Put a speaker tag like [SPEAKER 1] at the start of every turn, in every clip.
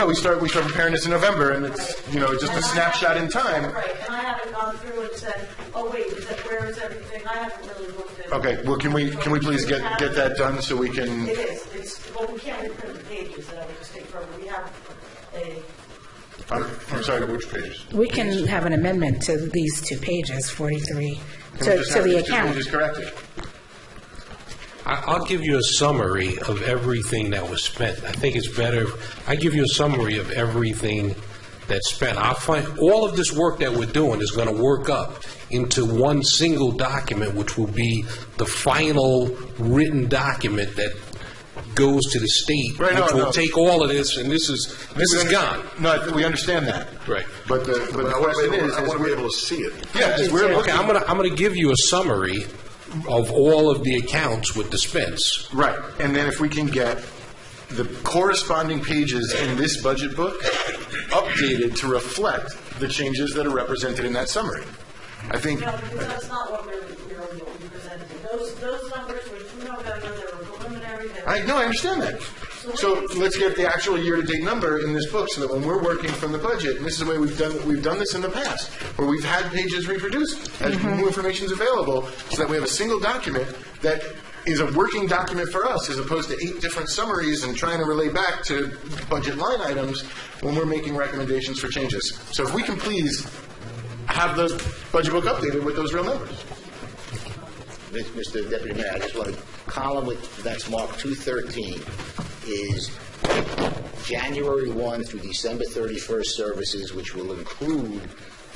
[SPEAKER 1] Yeah, we start, we start preparing this in November, and it's, you know, just a snapshot in time.
[SPEAKER 2] Right, and I haven't gone through and said, oh, wait, is that, where is everything? I haven't really looked at it.
[SPEAKER 1] Okay, well, can we, can we please get, get that done so we can,
[SPEAKER 2] It is, it's, well, we can't reprint the pages, that I would just take from, we have a,
[SPEAKER 1] I'm I'm sorry, which pages?
[SPEAKER 3] We can have an amendment to these two pages, 43,
[SPEAKER 1] Can we
[SPEAKER 3] to
[SPEAKER 1] just
[SPEAKER 3] to
[SPEAKER 1] have
[SPEAKER 3] the
[SPEAKER 1] these two pages
[SPEAKER 3] account.
[SPEAKER 1] corrected?
[SPEAKER 4] I- I'll give you a summary of everything that was spent. I think it's better, if- I give you a summary of everything that's spent. I'll find, all of this work that we're doing is going to work up into one single document, which will be the final written document that goes to the state,
[SPEAKER 1] Right, no,
[SPEAKER 4] which
[SPEAKER 1] no.
[SPEAKER 4] will take all of this, and this is, this is gone.
[SPEAKER 1] No, we understand that.
[SPEAKER 4] Right.
[SPEAKER 1] But the, but the
[SPEAKER 5] I want
[SPEAKER 1] question is,
[SPEAKER 5] to be
[SPEAKER 1] is
[SPEAKER 5] able to see it.
[SPEAKER 1] yeah, is we're
[SPEAKER 4] Okay,
[SPEAKER 1] looking,
[SPEAKER 4] I'm going to, I'm going to give you a summary of all of the accounts with the spends.
[SPEAKER 1] right, and then if we can get the corresponding pages in this budget book updated to reflect the changes that are represented in that summary. I think,
[SPEAKER 2] no, because that's not what we're, we're what we presented. Those, those numbers were through November, they were preliminary, they were
[SPEAKER 1] I, no, I understand that. So let's get the actual year-to-date number in this book, so that when we're working from the budget, and this is the way we've done, we've done this in the past, where we've had pages reproduced, as new information's available, so that we have a single document that is a working document for us, as opposed to eight different summaries and trying to relay back to budget line items when we're making recommendations for changes. So if we can please have the budget book updated with those real numbers.
[SPEAKER 6] Mr. Deputy Mayor, I just want to, column with, that's marked 213, is January 1 through December 31st services, which will include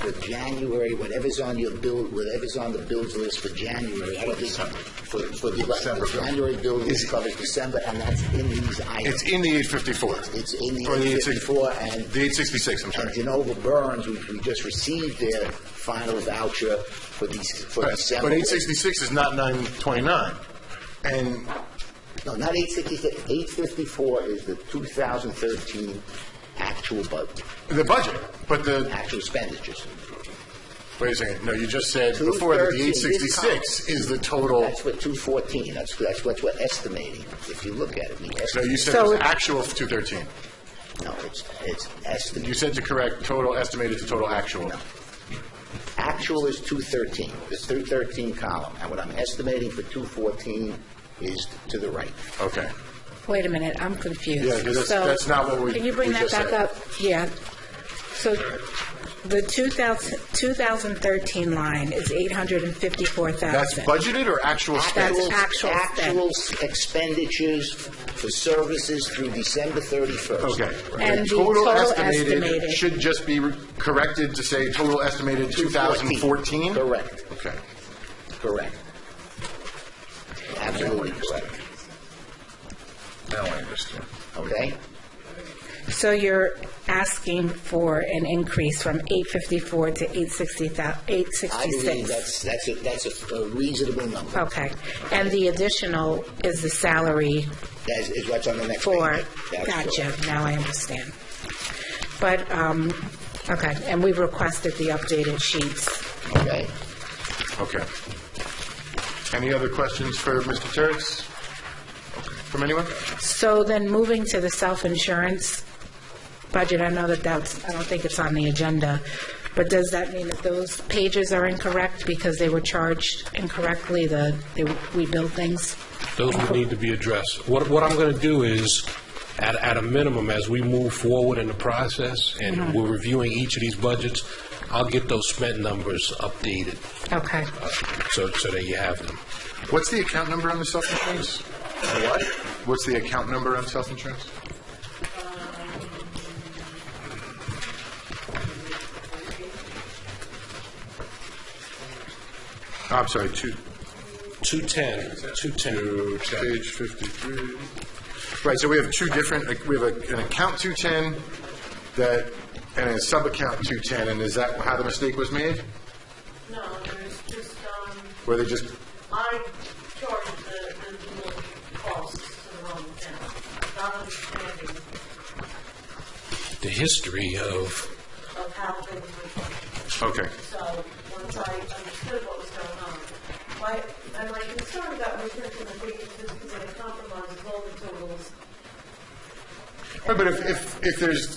[SPEAKER 6] the January, whatever's on your bill, whatever's on the bills list for January. I don't think- For, for the, the January bill list covers December, and that's in these items.
[SPEAKER 1] It's in the 854.
[SPEAKER 6] It's in the
[SPEAKER 1] Or the 860
[SPEAKER 6] 854, and
[SPEAKER 1] The 866, I'm sorry.
[SPEAKER 6] and Genova Burns, we, we just received their final voucher for these, for
[SPEAKER 1] Right,
[SPEAKER 6] December.
[SPEAKER 1] But eight sixty-six is not nine twenty-nine, and,
[SPEAKER 6] No, not 866, 854 is the 2013 actual budget,
[SPEAKER 1] the budget, but the,
[SPEAKER 6] actual expenditures.
[SPEAKER 1] wait a second, no, you just said before that the
[SPEAKER 6] 213,
[SPEAKER 1] eight
[SPEAKER 6] this
[SPEAKER 1] sixty-six
[SPEAKER 6] column.
[SPEAKER 1] is the total,
[SPEAKER 6] That's what 214, that's, that's what we're estimating, if you look at it. we
[SPEAKER 1] no, you
[SPEAKER 6] estimate-
[SPEAKER 1] said
[SPEAKER 3] So
[SPEAKER 1] it's
[SPEAKER 3] it-
[SPEAKER 1] actual two thirteen.
[SPEAKER 6] No, it's, it's
[SPEAKER 1] You
[SPEAKER 6] estimate,
[SPEAKER 1] said to correct total estimated to total actual.
[SPEAKER 6] actual is 213, this 213 column, and what I'm estimating for 214 is to the right.
[SPEAKER 1] Okay.
[SPEAKER 3] Wait a minute, I'm
[SPEAKER 1] Yeah, 'cause
[SPEAKER 3] confused.
[SPEAKER 1] that's-
[SPEAKER 3] So,
[SPEAKER 1] that's not what we-
[SPEAKER 3] Can you bring
[SPEAKER 1] we
[SPEAKER 3] that
[SPEAKER 1] just
[SPEAKER 3] back
[SPEAKER 1] said.
[SPEAKER 3] up? Yeah. So the 2000 2013 line is 854,000.
[SPEAKER 1] That's budgeted or actual spent?
[SPEAKER 3] That's actual
[SPEAKER 6] Actual expenditures for services through December 31st.
[SPEAKER 1] Okay.
[SPEAKER 3] And the
[SPEAKER 1] Total
[SPEAKER 3] total
[SPEAKER 1] estimated
[SPEAKER 3] estimated-
[SPEAKER 1] should just be re- corrected to say total estimated two thousand fourteen?
[SPEAKER 6] Correct.
[SPEAKER 1] Okay.
[SPEAKER 6] Correct. Absolutely correct,
[SPEAKER 1] Now I understand.
[SPEAKER 6] okay?
[SPEAKER 3] So you're asking for an increase from 854 to 866?
[SPEAKER 6] I believe that's, that's, a that's a reasonable number.
[SPEAKER 3] Okay. And the additional is the salary
[SPEAKER 6] That is- is what's on the next page.
[SPEAKER 3] for,
[SPEAKER 6] That's
[SPEAKER 3] gotcha,
[SPEAKER 6] correct.
[SPEAKER 3] now I understand. But, um, okay, and we've requested the updated sheets.
[SPEAKER 6] Okay?
[SPEAKER 1] Okay. Any other questions for Mr. Turks? From anyone?
[SPEAKER 3] So then moving to the self-insurance budget, I know that that's, I don't think it's on the agenda, but does that mean that those pages are incorrect because they were charged incorrectly, the, they- we billed things?
[SPEAKER 4] Those would need to be addressed. What, what I'm going to do is, at, at a minimum, as we move forward in the process, and we're reviewing each of these budgets, I'll get those spent numbers updated,
[SPEAKER 3] Okay.
[SPEAKER 4] uh, so, so that you have them.
[SPEAKER 1] What's the account number on the self-insurance? What? What's the account number on self-insurance? Oh, I'm sorry, two,
[SPEAKER 4] 210, 210.
[SPEAKER 1] page 53. Right, so we have two different, like, we have a- an account 210 that, and a sub-account 210, and is that how the mistake was made?
[SPEAKER 2] No, there's just, um,
[SPEAKER 1] Where they just
[SPEAKER 2] I charged the, the little costs to the wrong account, not understanding
[SPEAKER 4] The history of,
[SPEAKER 2] of how things were charged.
[SPEAKER 1] Okay.
[SPEAKER 2] So, once I understood what was going on, my, and my concern about researching the pages is because it compromises all the totals
[SPEAKER 1] Right, But if, if, if there's